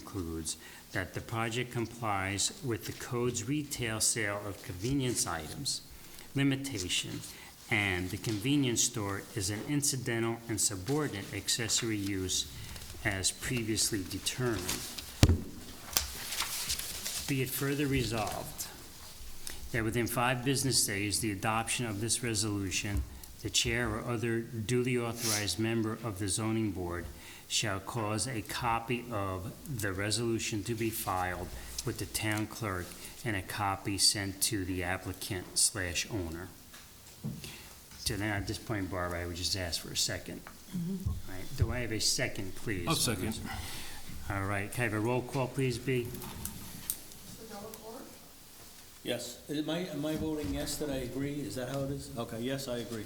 concludes that the project complies with the code's retail sale of convenience items limitation, and the convenience store is an incidental and subordinate accessory use as previously determined. Be it further resolved that within five business days, the adoption of this resolution, the chair or other duly authorized member of the zoning board shall cause a copy of the resolution to be filed with the town clerk and a copy sent to the applicant slash owner. So now, at this point, Barbara, I would just ask for a second. All right, do I have a second, please? I'll second. All right, can I have a roll call, please, B? Yes. Am I, am I voting yes that I agree? Is that how it is? Okay, yes, I agree.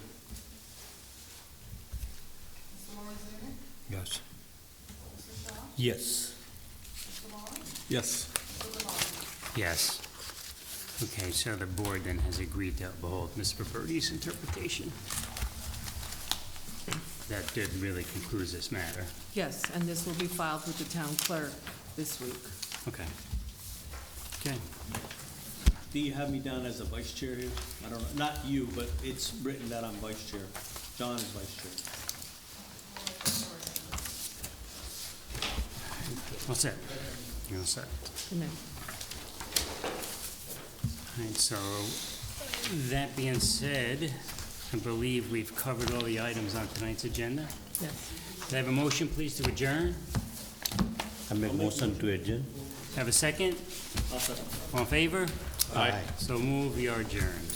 Yes. Yes. Yes. Yes. Okay, so the board then has agreed to uphold Mr. Birdy's interpretation. That did really concludes this matter. Yes, and this will be filed with the town clerk this week. Okay. Okay. Do you have me down as a vice chair here? I don't know, not you, but it's written that I'm vice chair. John is vice chair. What's that? You're all set. And then- All right, so that being said, I believe we've covered all the items on tonight's agenda. Yes. Can I have a motion, please, to adjourn? I make motion to adjourn. Have a second? I'll second. All in favor? Aye. So move, we are adjourned.